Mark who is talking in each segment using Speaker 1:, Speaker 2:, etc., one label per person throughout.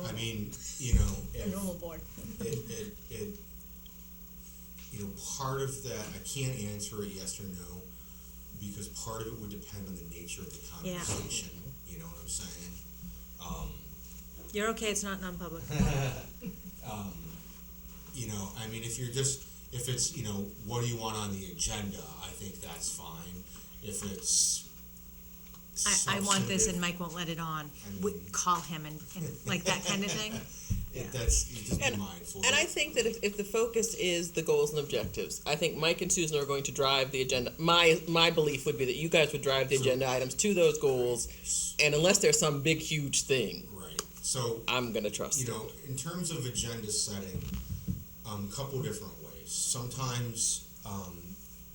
Speaker 1: I mean, you know,
Speaker 2: the
Speaker 1: if,
Speaker 2: normal board.
Speaker 1: it, it, it, you know, part of that, I can't answer it yes or no, because part of it would depend on the nature of the
Speaker 2: Yeah.
Speaker 1: conversation, you know what I'm saying? Um,
Speaker 2: You're okay, it's not non-public.
Speaker 1: you know, I mean, if you're just, if it's, you know, what do you want on the agenda, I think that's fine, if it's.
Speaker 3: I, I want this and
Speaker 1: substantive,
Speaker 3: Mike won't let it on.
Speaker 1: I
Speaker 3: We,
Speaker 1: mean-
Speaker 3: call him and, and like that kind of thing.
Speaker 1: it- That's, you just be mindful.
Speaker 4: And I think that if, if the focus is the goals and objectives, I think Mike and Susan are going to drive the agenda. My my belief would be that you guys would drive the agenda items to those goals, and unless there's some big huge thing,
Speaker 1: Right, so,
Speaker 4: I'm gonna trust.
Speaker 1: you
Speaker 4: it.
Speaker 1: know, in terms of agenda setting, um, couple different ways. Sometimes, um,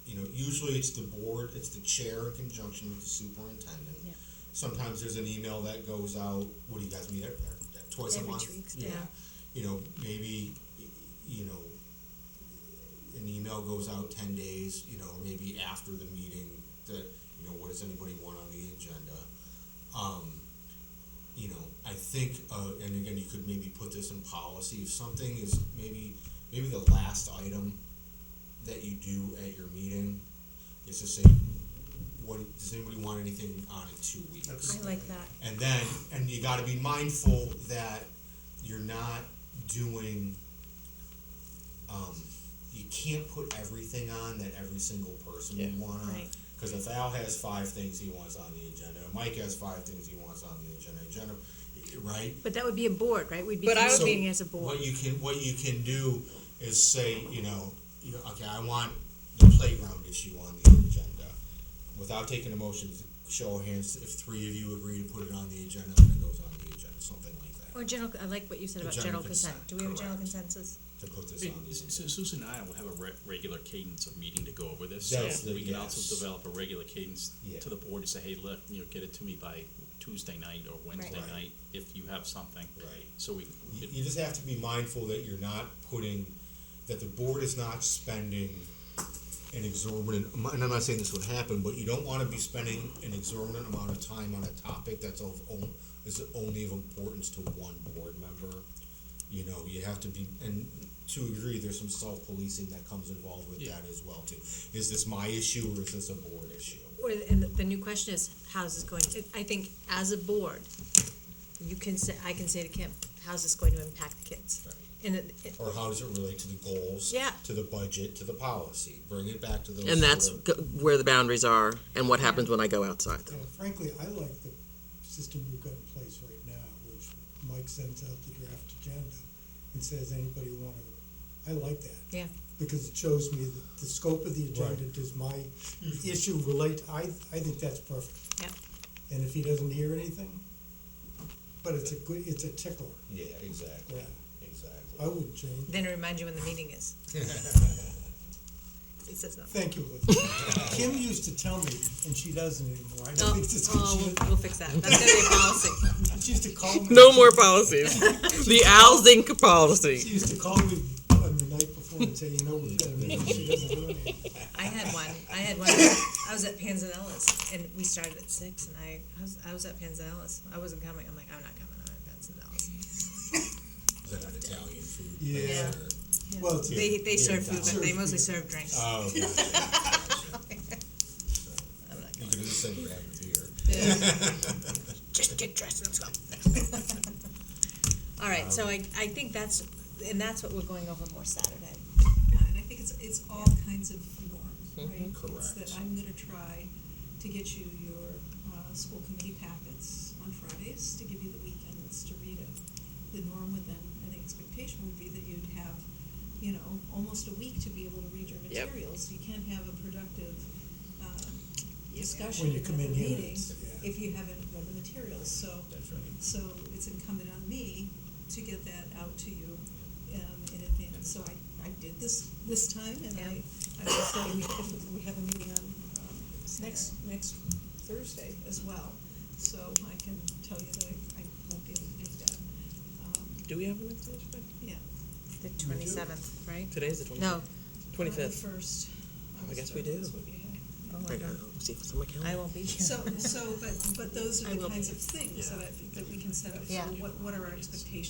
Speaker 1: you know, usually it's the board, it's the chair in conjunction with the superintendent.
Speaker 2: Yeah.
Speaker 1: Sometimes there's an email that goes out, what do you guys meet at, at twice a
Speaker 2: Every
Speaker 1: month?
Speaker 2: two weeks, yeah.
Speaker 1: You know, maybe, y- you know, an email goes out ten days, you know, maybe after the meeting, that, you know, what does anybody want on the agenda? Um, you know, I think, uh, and again, you could maybe put this in policy, if something is maybe, maybe the last item that you do at your meeting is to say, what, does anybody want anything on in two weeks?
Speaker 2: I like that.
Speaker 1: And then, and you gotta be mindful that you're not doing, um, you can't put everything on that every single person
Speaker 4: Yeah.
Speaker 1: would want on.
Speaker 2: Right.
Speaker 1: Cause if Al has five things he wants on the agenda, Mike has five things he wants on the agenda, agenda, right?
Speaker 3: But that would be a board, right? We'd be
Speaker 4: But I would
Speaker 1: So
Speaker 3: communicating as a board.
Speaker 1: What you can, what you can do is say, you know, you know, okay, I want the playground issue on the agenda. Without taking a motion, show of hands, if three of you agree to put it on the agenda, then it goes on the agenda, something like that,
Speaker 2: Or general, I like what you said
Speaker 1: The
Speaker 2: about general
Speaker 1: general
Speaker 2: consent.
Speaker 1: consent,
Speaker 2: Do we have a general
Speaker 1: correct.
Speaker 2: consensus?
Speaker 1: to put this
Speaker 5: Hey,
Speaker 1: on the
Speaker 5: Su-
Speaker 1: agenda.
Speaker 5: Su- Susan and I will have a re- regular cadence of meeting to go over this,
Speaker 1: That's
Speaker 5: so
Speaker 1: the-
Speaker 5: we can
Speaker 1: yes.
Speaker 5: also develop a regular cadence
Speaker 1: Yeah.
Speaker 5: to the board to say, hey, look, you know, get it to me by Tuesday night or Wednesday
Speaker 1: Right.
Speaker 5: night if you have something.
Speaker 1: Right.
Speaker 5: So we,
Speaker 1: You,
Speaker 5: it-
Speaker 1: you just have to be mindful that you're not putting, that the board is not spending an exorbitant, amo- and I'm not saying this would happen, but you don't wanna be spending an exorbitant amount of time on a topic that's of, on- is only of importance to one board member. You know, you have to be, and to agree, there's some self-policing that comes involved with
Speaker 5: Yeah.
Speaker 1: that as well too. Is this my issue or is this a board issue?
Speaker 3: Or, and the- the new question is, how's this going, to- I think as a board, you can say, I can say to Kim, how's this going to impact the kids?
Speaker 1: Right.
Speaker 3: And it, it-
Speaker 1: Or how does it relate to the goals?
Speaker 3: Yeah.
Speaker 1: To the budget, to the policy, bring it back to those.
Speaker 4: and that's
Speaker 1: sort of-
Speaker 4: g- where the boundaries are, and what happens when I go outside.
Speaker 6: Yeah, frankly, I like the system we've got in place right now, which Mike sends out the draft agenda and says, anybody wanna, I like that.
Speaker 3: Yeah.
Speaker 6: Because it shows me that the scope of the agenda, does my issue relate, I, I think that's perfect.
Speaker 3: Yeah.
Speaker 6: And if he doesn't hear anything, but it's a good, it's a tickler,
Speaker 1: Yeah, exactly,
Speaker 6: yeah,
Speaker 1: exactly.
Speaker 6: I wouldn't change,
Speaker 3: then remind you when the meeting is. It says nothing.
Speaker 6: thank you, Liz. Kim used to tell me, and she doesn't anymore, I
Speaker 3: Oh,
Speaker 6: don't think this,
Speaker 3: oh,
Speaker 6: she,
Speaker 3: we'll- we'll fix that, that's gonna be a policy.
Speaker 6: she used to call me.
Speaker 4: No more policies. the Al Zink policy.
Speaker 6: She used to call me on the night before and say, you know, we've got a meeting, she doesn't do anything.
Speaker 3: I had one. I had one. I was at Panzanella's, and we started at six, and I, I was I was at Panzanella's. I wasn't coming. I'm like, I'm not coming. I'm at Panzanella's.
Speaker 1: Is that an Italian food?
Speaker 6: Yeah, well, it's,
Speaker 3: They they
Speaker 1: Yeah,
Speaker 3: serve food, but they
Speaker 6: serve
Speaker 3: mostly
Speaker 6: food. Uh,
Speaker 3: serve drinks.
Speaker 1: Oh, okay.
Speaker 3: I'm like,
Speaker 1: you could have just said grab a beer.
Speaker 3: just get dressed and let's go. All right.
Speaker 6: Uh,
Speaker 3: So I I think that's and that's what we're going over more Saturday.
Speaker 7: Yeah, Uh, and I think it's, it's all kinds of forms, right? It's that
Speaker 1: Correct.
Speaker 7: I'm gonna try to get you your, uh, school committee packets on Fridays, to give you the weekends to read it. The norm would then, and the expectation would be that you'd have, you know, almost a week to be able to read your
Speaker 4: Yep.
Speaker 7: materials. You can't have a productive, um,
Speaker 6: When
Speaker 7: discussion
Speaker 6: you
Speaker 7: at a
Speaker 6: come in here,
Speaker 7: meeting
Speaker 6: it's- yeah.
Speaker 7: if you haven't read the materials, so.
Speaker 1: That's right.
Speaker 7: So it's incumbent on me to get that out to you um, in advance. So I, I did this, this time, and I, I will say we have, we have a meeting on um, next, next Thursday as well. So I can tell you that I, I won't be able to make that. Um,
Speaker 4: Do we have an extension?
Speaker 7: Yeah.
Speaker 3: The 27th, right?
Speaker 4: Today's the 25th.
Speaker 3: No,
Speaker 4: 25th.
Speaker 7: First.
Speaker 4: I guess we do. uh,
Speaker 3: Oh my God.
Speaker 4: See if it's on my calendar.
Speaker 3: I won't be here.
Speaker 7: So, so, but, but those
Speaker 3: I
Speaker 7: are the
Speaker 3: will be.
Speaker 7: kinds of things that I think that we can set up. So
Speaker 3: Yeah.
Speaker 7: what, what are our expectations?